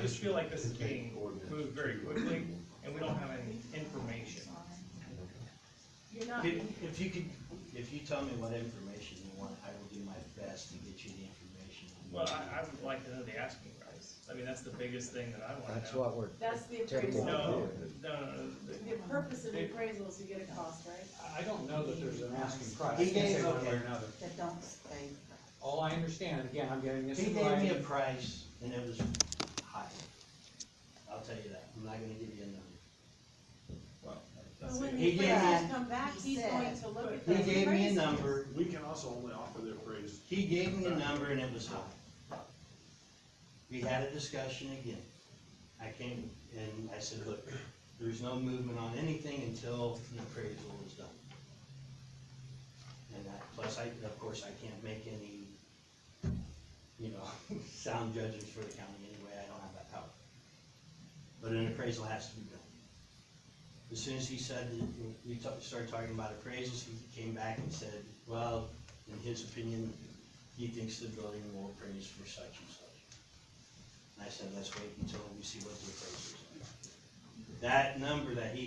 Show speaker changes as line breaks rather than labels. just feel like this is being moved very quickly, and we don't have any information.
You're not,
If if you could, if you tell me what information you want, I will do my best to get you the information.
Well, I, I would like to know the asking price. I mean, that's the biggest thing that I wanna
That's
know.
what we're.
that's the
Typical.
appraisal.
No, no, no, no,
The purpose of the appraisal is to get a cost, right?
I don't know that there's an asking price,
He
I can't
gave-
say one way or
okay.
another.
that don't stay.
All I understand, and again, I'm getting this
He
in
gave me a
writing,
price and it was high. I'll tell you that. I'm not gonna give you a
well,
But
that's
when
it.
the
He gave
appraisers
me-
come back, he's
said-
going to look at
number. He
those
gave me a
appraisals.
number,
We can also only offer the appraised.
he gave me a number and it was high. We had a discussion again. I came and I said, look, there's no movement on anything until the appraisal is done. And that, plus I, of course, I can't make any, you know, sound judgments for the county anyway, I don't have that power. But an appraisal has to be done. As soon as he said, that- we ta- started talking about appraisals, he came back and said, well, in his opinion, he thinks the building will appraise for such and such. And I said, let's wait until we see what the appraisals are. That number that he